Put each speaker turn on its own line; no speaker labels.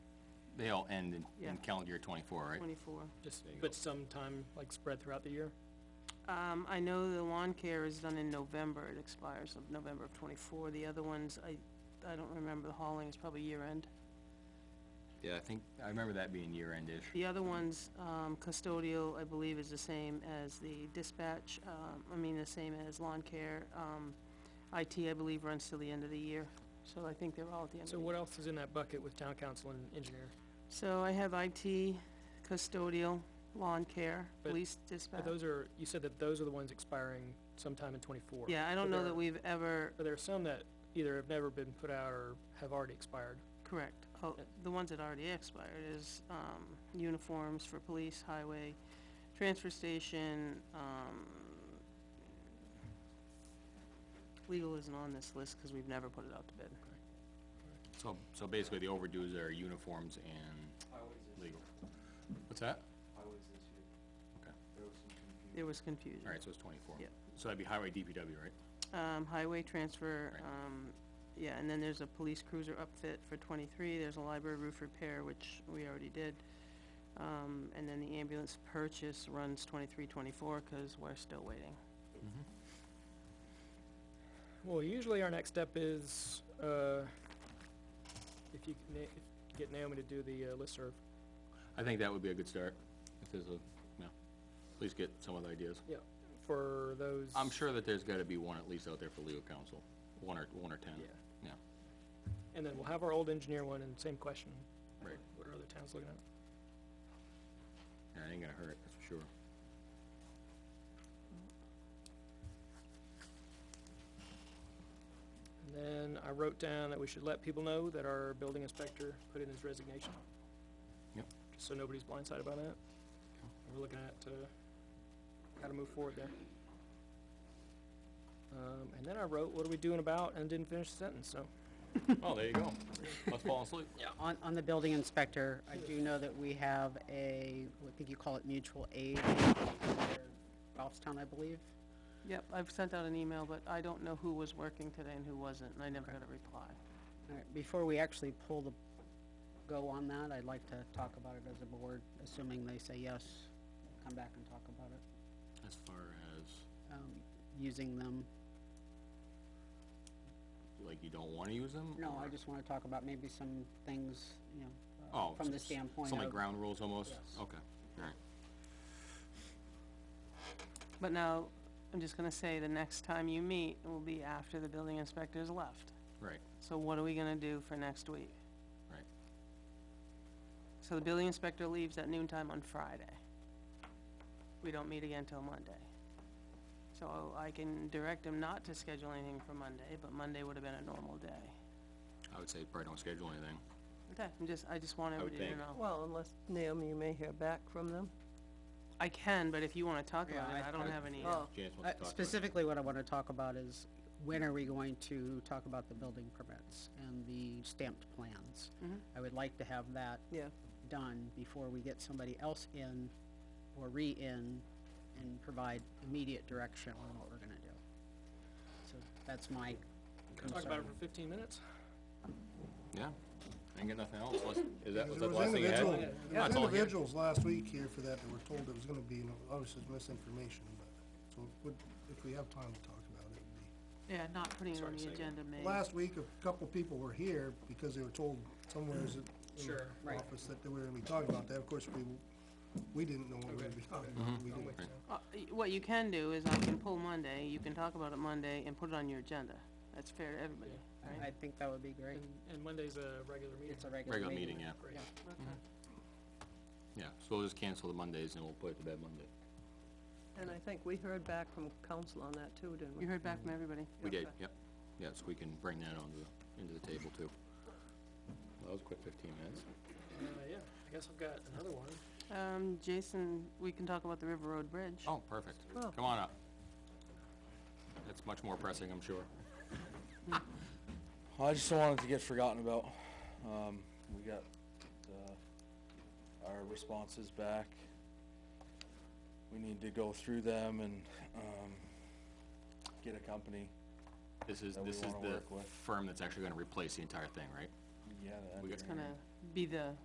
They all end in, in
Yeah.
calendar year twenty-four, right?
twenty-four.
Just, but sometime, like, spread throughout the year?
Um, I know the lawn care is done in November, it expires of November of twenty-four, the other ones, I, I don't remember, the hauling is probably year-end.
Yeah, I think, I remember that being year-end-ish.
The other ones, um, custodial, I believe, is the same as the dispatch, um, I mean, the same as lawn care, um, IT, I believe, runs till the end of the year, so I think they're all at the end of the
So
year.
what else is in that bucket with town council and engineer?
So I have IT, custodial, lawn care,
But-
police
But
dispatch.
those are, you said that those are the ones expiring sometime in twenty-four.
Yeah, I
but
don't know
there
that
are-
we've ever,
But there are some that either have never been put out or have already expired.
correct, oh, the ones that already expired is, um, uniforms for police, highway, transfer station, um, legal isn't on this list, cause we've never put it out to bid.
So, so basically the overdues are uniforms and
Highways this
legal. What's that?
highways this year.
Okay.
There was some confusion.
There was confusion.
Alright, so it's twenty-four.
Yep.
So that'd be highway DPW, right?
Um, highway transfer,
Right.
um, yeah, and then there's a police cruiser upfit for twenty-three, there's a library roof repair, which we already did. Um, and then the ambulance purchase runs twenty-three, twenty-four, cause we're still waiting.
Well, usually our next step is, uh, if you can na- if- get Naomi to do the uh, listserv.
I think that would be a good start, if there's a, yeah, at least get some of the ideas.
Yeah. For those.
I'm sure that there's gotta be one at least out there for legal counsel, one or, one or ten.
Yeah.
Yeah,
And then we'll have our old engineer one and same question.
Right.
What are other towns looking at?
Yeah, it ain't gonna hurt, that's for sure.
And then I wrote down that we should let people know that our building inspector put in his resignation.
Yep.
Just so nobody's blindsided by that. And We're looking at, uh, how to move forward there. Um, and then I wrote, what are we doing about, and didn't finish the sentence, so.
Oh, there you go. Let's fall asleep.
On, on the building inspector, I do know that we have a, I think you call it mutual aid, Goffstown, I believe.
Yep, I've sent out an email, but I don't know who was working today and who wasn't, and I never got a reply.
All right, before we actually pull the, go on that, I'd like to talk about it as a board, assuming they say yes, come back and talk about it,
As far as,
um, using them.
like, you don't wanna use them?
No, I
or-
just wanna talk about maybe some things, you know, uh,
Oh.
from the
s- s-
standpoint of.
Some like ground rules almost?
Yes.
Okay, alright.
But now, I'm just gonna say, the next time you meet will be after the building inspector's left.
Right,
So what are we gonna do for next week?
right.
So the building inspector leaves at noon time on Friday. We don't meet again till Monday. So I can direct him not to schedule anything for Monday, but Monday would have been a normal day.
I would say probably don't schedule anything.
Okay, I'm just, I just want
would
everybody to
think.
know.
Well, unless, Naomi, you may hear back from them.
I can, but if you wanna talk about
Yeah,
it,
I-
I don't
I-
have any.
Oh.
Janice wants
Uh,
to talk about it.
Specifically, what I want to talk about is, when are we going to talk about the building permits and the stamped plans? I would like to have that
Yeah.
done before we get somebody else in or re-in and provide immediate direction on what we're gonna do. So that's my
Talk about it
concern.
for fifteen minutes?
Yeah, I ain't got nothing else, unless, is that, was
There
that the last thing you had?
individual-
No,
There was
that's all I had.
individuals last week here for that that were told it was gonna be, and obviously it's misinformation, but, so would, if we have time to talk about it, it'd be.
Yeah, not putting it
Sorry,
on
say
the
again.
agenda, maybe.
Last week, a couple people were here because they were told somewheres at- in
Sure,
the
right.
office that they were gonna be talking about that. Of course, we, we didn't know what we were gonna be talking
Mm-hmm.
about. We
I'm
didn't-
with you.
Uh, y- What you can do is I can pull Monday, you can talk about it Monday and put it on your agenda. That's fair to everybody, right?
I think that would be great.
And, and Monday's a regular meeting.
It's a regular meeting.
Regular meeting, yeah,
Great. Uh,
Yeah.
yeah, so we'll just cancel the Mondays and we'll put it to bed Monday.
And I think we heard back from council on that too, didn't we?
You heard back from everybody?
We did,
Okay.
yep, yeah, so we can bring that onto the, into the table too. Well, That was a quick fifteen minutes.
Uh, yeah, I guess I've got another one.
Um, Jason, we can talk about the River Road Bridge.
Oh, perfect,
Oh.
come on up. That's much more pressing, I'm sure.
Well, I just don't want it to get forgotten about. Um, we got, uh, our responses back. We need to go through them and, um, get a company.
This is,
That we
this is
wanna
the
work with.
firm that's actually gonna replace the entire thing, right?
Yeah. that'd
We
be
got-
It's
great.
gonna be the